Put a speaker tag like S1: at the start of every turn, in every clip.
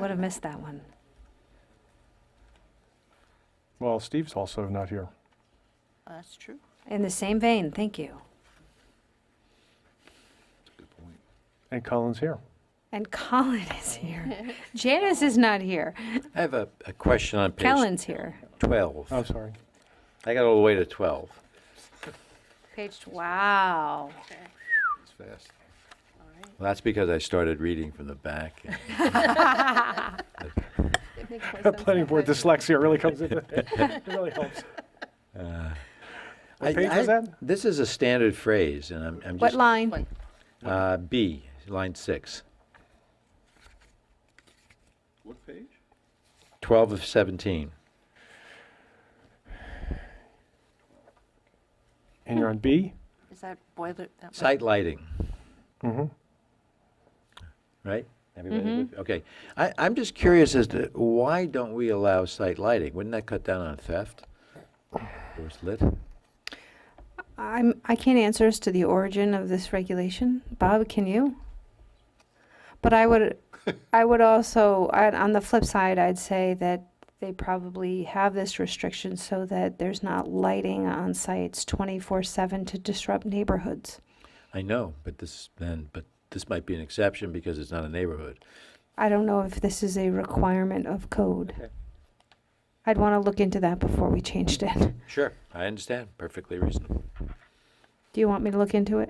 S1: Would have missed that one.
S2: Well, Steve's also not here.
S3: Uh, That's true.
S1: In the same vein, thank you.
S2: And Colin's here.
S1: And Colin is here. Janice is not here.
S4: I have a, a question on page
S1: Kellen's here.
S4: 12.
S2: I'm Oh, sorry.
S4: I got all the way to 12.
S1: Page, wow.
S5: It's fast.
S4: Well, that's because I started reading from the back. and-
S6: It makes more
S2: The
S6: sense
S2: planning
S6: that
S2: board
S6: way.
S2: dyslexia really comes in. It really helps. What
S4: I-
S2: page
S4: I-
S2: was that?
S4: This is a standard phrase, and I'm, I'm
S1: What
S4: just.
S1: line?
S4: Uh, B, line six.
S5: What page?
S4: 12 of 17.
S2: And you're on B?
S3: Is that boiler? that was-
S4: Site lighting. Right? Everybody with- Okay. I, I'm just curious as to why don't we allow site lighting? Wouldn't that cut down on theft? Or it's lit?
S1: I'm, I can't answer as to the origin of this regulation. Bob, can you? But I would, I would also, I, on the flip side, I'd say that they probably have this restriction so that there's not lighting on sites twenty-four seven to disrupt neighborhoods.
S4: I know, but this then, but this might be an exception because it's not a neighborhood.
S1: I don't know if this is a requirement of code.
S4: Okay.
S1: I'd want to look into that before we changed it.
S4: Sure, I understand. Perfectly reasonable.
S1: Do you want me to look into it?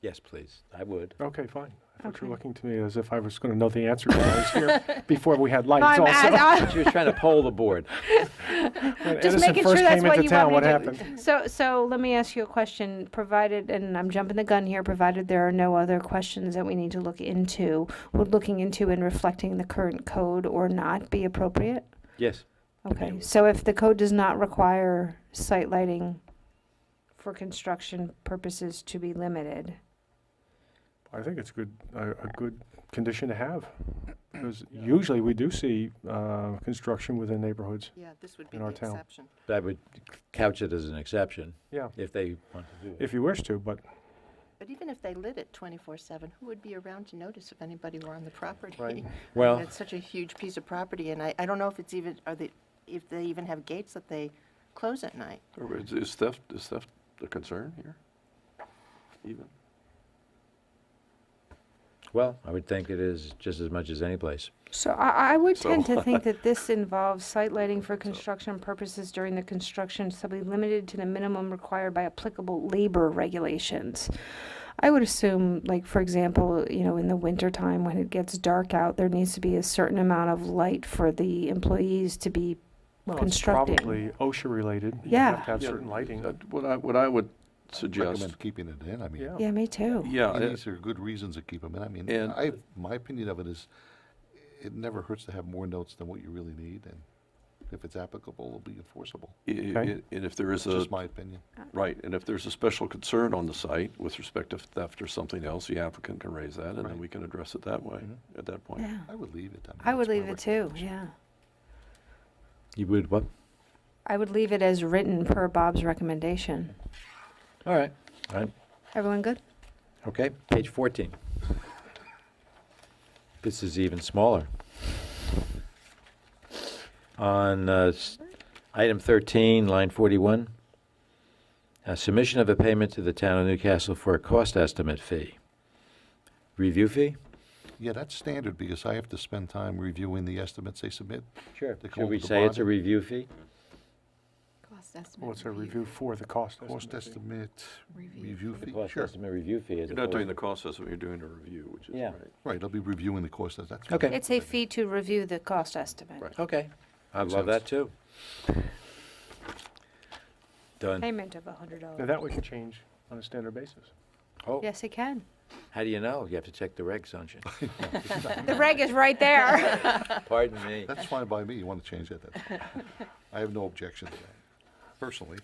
S4: Yes, please. I would.
S2: Okay, fine. I thought you
S1: Okay.
S2: were looking to me as if I was going to know the answer because I was here before we had lights
S1: I'm-
S2: also.
S1: I-
S4: She was trying to poll the board.
S2: When
S1: Just
S2: Edison
S1: making sure
S2: first
S1: that's
S2: came
S1: what
S2: into
S1: you
S2: town, what
S1: want me to do.
S2: happened?
S1: I- So, so let me ask you a question, provided, and I'm jumping the gun here, provided there are no other questions that we need to look into, would looking into and reflecting the current code or not be appropriate?
S4: Yes.
S1: Okay,
S4: would.
S1: so if the code does not require site lighting for construction purposes to be limited,
S2: I think it's good, a, a good condition to have. Because usually we do see, uh, construction within neighborhoods.
S3: Yeah, this would be
S2: in
S3: the
S2: our town.
S3: exception.
S4: I would couch it as an exception
S2: Yeah,
S4: if they want to do it.
S2: if you wish to, but
S3: But even if they lit it twenty-four seven, who would be around to notice if anybody were on the property?
S2: Right.
S4: Well-
S3: It's such a huge piece of property, and I, I don't know if it's even, are they, if they even have gates that they close at night.
S5: Or Is is theft, is theft a concern here? Even?
S4: Well, I would think it is just as much as any place.
S1: So I, I would
S5: So-
S1: tend to think that this involves site lighting for construction purposes during the construction, so be limited to the minimum required by applicable labor regulations. I would assume, like, for example, you know, in the wintertime when it gets dark out, there needs to be a certain amount of light for the employees to be
S2: well, it's
S1: constructing.
S2: probably OSHA-related. You
S1: Yeah.
S2: have to have
S5: Yeah,
S2: certain lighting.
S5: that- What I, what I would suggest,
S7: recommend keeping it in, I mean.
S2: Yeah.
S1: Yeah, me too.
S5: yeah,
S7: and
S5: uh,
S7: These are good reasons to keep them in, I mean,
S5: And-
S7: I, my opinion of it is, it never hurts to have more notes than what you really need, and if it's applicable, it'll be enforceable,
S5: i- i-
S2: Okay.
S5: and if there is
S7: It's
S5: a,
S7: just my opinion.
S5: right, and if there's a special concern on the site with respect to theft or something else, the applicant can raise that, and then
S7: Right.
S5: we can address it that way, at that point.
S1: Yeah,
S7: I would leave it. mean,
S1: I would
S7: that's my
S1: leave it too,
S7: recommendation.
S1: yeah.
S4: You would what?
S1: I would leave it as written per Bob's recommendation.
S4: All right. All right.
S1: Everyone good?
S4: Okay, page 14. This is even smaller. On uh, s- item 13, line 41, uh, submission of a payment to the town of Newcastle for a cost estimate fee. Review fee?
S7: Yeah, that's standard, because I have to spend time reviewing the estimates they submit.
S4: Sure.
S7: They call
S4: Should
S7: it
S4: we
S7: the
S4: say it's a
S7: bond.
S4: review fee?
S6: Cost estimate.
S2: Well, it's a review for the cost
S7: Cost
S2: estimate.
S7: estimate,
S6: Review
S7: review
S4: The
S7: fee,
S4: cost
S7: sure,
S4: estimate review fee is.
S5: You're not doing the cost estimate, you're doing a review, which is
S4: Yeah.
S5: right.
S7: right, I'll be reviewing the cost, that's. that's
S4: Okay.
S7: fine.
S1: It's a fee to review the cost estimate.
S5: Right.
S4: Okay, I
S7: Makes
S4: love
S7: sense.
S4: that too. Done.
S1: Payment of a hundred
S2: Now,
S1: dollars.
S2: that we can change on a standard basis.
S4: Oh,
S1: Yes, it can.
S4: how do you know? You have to check the regs, don't you?
S1: The reg is right there.
S4: Pardon me.
S7: That's fine by me, you want to change that, that's fine. I have no objection to that, personally.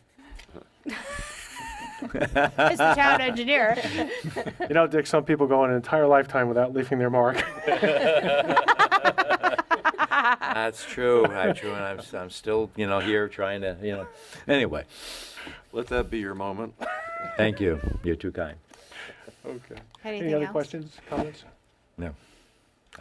S1: It's the town engineer.
S2: You know, Dick, some people go an entire lifetime without leaving their mark.
S4: That's true. I true, and I'm, I'm still, you know, here trying to, you know. Anyway,
S5: Let that be your moment.
S4: thank you. You're too kind.
S2: Okay. Any
S1: Anything
S2: other
S1: else?
S2: questions, comments?
S4: No.